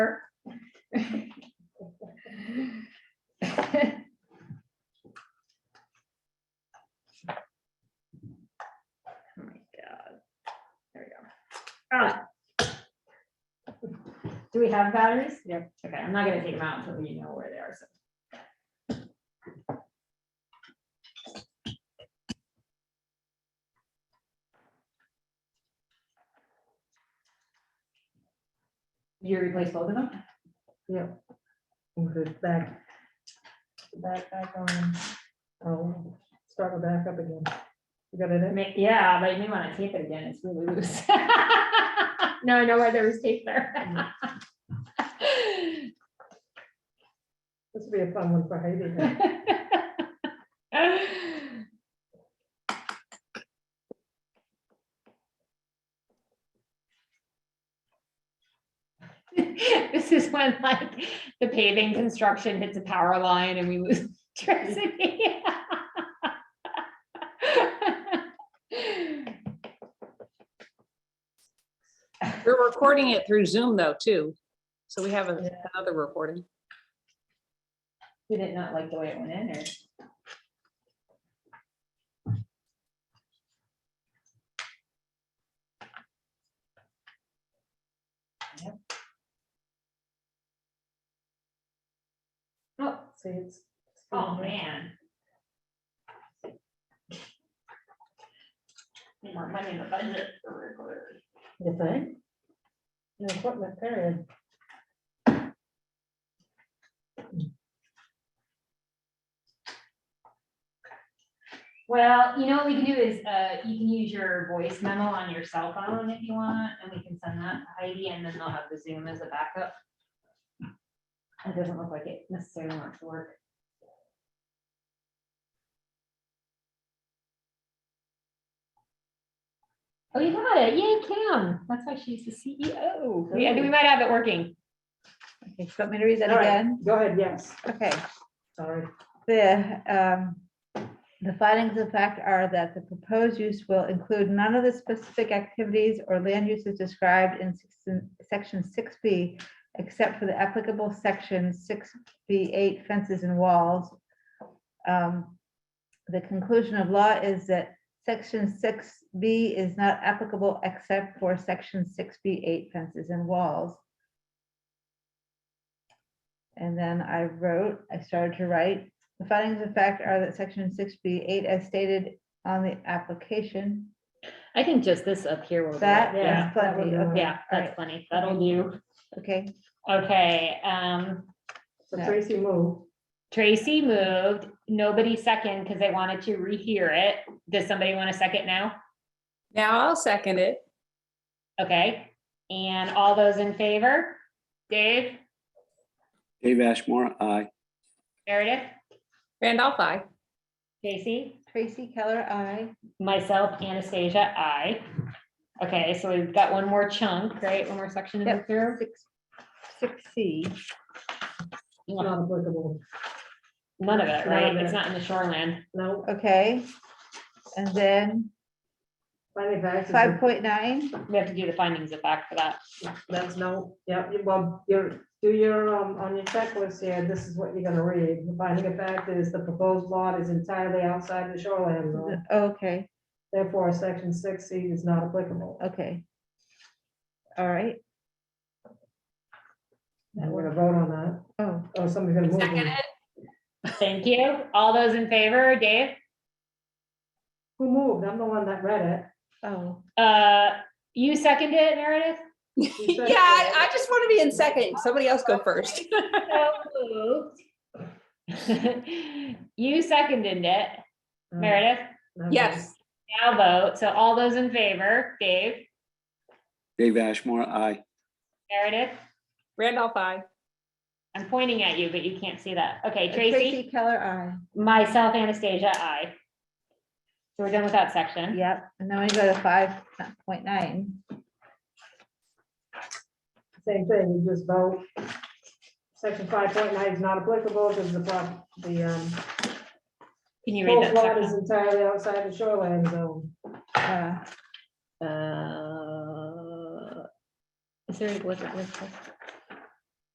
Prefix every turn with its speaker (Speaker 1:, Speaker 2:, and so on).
Speaker 1: Oh Oh my God. There we go. Ah. Do we have batteries? Yeah. Okay, I'm not gonna take them out until we know where they are, so. You replace both of them?
Speaker 2: Move it back. Back, back on. Oh, start it back up again. You got it?
Speaker 1: I
Speaker 2: in?
Speaker 1: mean, Yeah, but you may want to tape it again, it's really loose. No, I know why there was tape there.
Speaker 2: This will be a fun one for Heidi. huh?
Speaker 1: This is when like the paving construction hits a power line and we lose electricity.
Speaker 3: We're recording it through Zoom though, too. So we have a-
Speaker 2: Yeah.
Speaker 3: another recording.
Speaker 1: We did not like the way it went in or? Oh,
Speaker 2: See, it's.
Speaker 1: Oh, man. More money in the budget.
Speaker 2: You think? Yeah, equipment period.
Speaker 1: Well, you know what we can do is, uh, you can use your voice memo on your cell phone if you want, and we can send that to Heidi, and then they'll have the Zoom as a backup. It doesn't look like it necessarily wants to work. Oh, you got it. Yay, Kim. That's why she's the E CEO. We- I think we might have it working.
Speaker 4: Okay, so let me to read that
Speaker 2: All right.
Speaker 4: again.
Speaker 2: Go ahead, yes,
Speaker 4: Okay,
Speaker 2: sorry.
Speaker 4: the, um, the findings of fact are that the proposed use will include none of the specific activities or land uses described in section- section six B, except for the applicable section six B eight fences and walls. Um, The conclusion of law is that section six B is not applicable except for section six B eight fences and walls. And then I wrote, I started to write, the findings of fact are that section six B eight as stated on the application.
Speaker 1: I think just this up here will do it.
Speaker 4: That
Speaker 1: Yeah,
Speaker 4: is plenty,
Speaker 2: that would be-
Speaker 4: okay,
Speaker 1: yeah, that's funny. That'll do.
Speaker 4: okay,
Speaker 1: Okay, um,
Speaker 2: So
Speaker 4: Yeah.
Speaker 2: Tracy moved.
Speaker 1: Tracy moved, nobody second because they wanted to rehear it. Does somebody want to second now?
Speaker 3: Now I'll second it.
Speaker 1: Okay, and all those in favor? Dave,
Speaker 5: Dave Ashmore, aye.
Speaker 1: Meredith,
Speaker 3: Randolph, I.
Speaker 1: Tracy,
Speaker 4: Tracy Keller, I,
Speaker 1: myself, Anastasia, I. Okay, so we've got one more chunk, right? One more section to go
Speaker 4: Yep.
Speaker 1: through.
Speaker 4: six, six C.
Speaker 1: None
Speaker 2: Not applicable.
Speaker 1: of it, right? It's not in the shoreland.
Speaker 2: No,
Speaker 4: Okay, and then
Speaker 2: finding facts.
Speaker 4: five point nine,
Speaker 1: We have to do the findings of fact for that.
Speaker 2: That's no, yeah, you- well, you're, do your, um, on your checklist here, this is what you're gonna read. The finding of fact is the proposed lot is entirely outside the shoreline zone.
Speaker 4: okay,
Speaker 2: Therefore, section six C is not applicable.
Speaker 4: okay. All right,
Speaker 2: And We're gonna vote on that,
Speaker 4: oh,
Speaker 2: or somebody's gonna move.
Speaker 3: Second
Speaker 2: it.
Speaker 3: it.
Speaker 1: Thank you. All those in favor, Dave?
Speaker 2: Who moved? I'm the one that read
Speaker 4: oh,
Speaker 1: Uh, you seconded it, Meredith?
Speaker 2: it. She
Speaker 3: Yeah,
Speaker 2: said
Speaker 3: I,
Speaker 2: so.
Speaker 3: I just want to be in second. Somebody else go first.
Speaker 1: So moved. You seconded it,
Speaker 2: Um,
Speaker 1: Meredith.
Speaker 2: okay.
Speaker 3: Yes.
Speaker 1: Now vote. So all those in favor, Dave,
Speaker 5: Dave Ashmore, aye.
Speaker 1: Meredith,
Speaker 3: Randolph, I.
Speaker 1: I'm pointing at you, but you can't see that. Okay, Tracy,
Speaker 4: Uh, Tracy Keller, I,
Speaker 1: myself, Anastasia, I. So we're done with that section.
Speaker 4: yep, and then we go to five point nine.
Speaker 2: Same thing, you just vote. Section five point nine is not applicable because the, prop- the, um,
Speaker 1: Can you read
Speaker 2: proposed
Speaker 1: that
Speaker 2: lot is
Speaker 1: section?
Speaker 2: entirely outside the shoreline zone.
Speaker 4: Uh,
Speaker 1: Uh, Is there, was it, was it-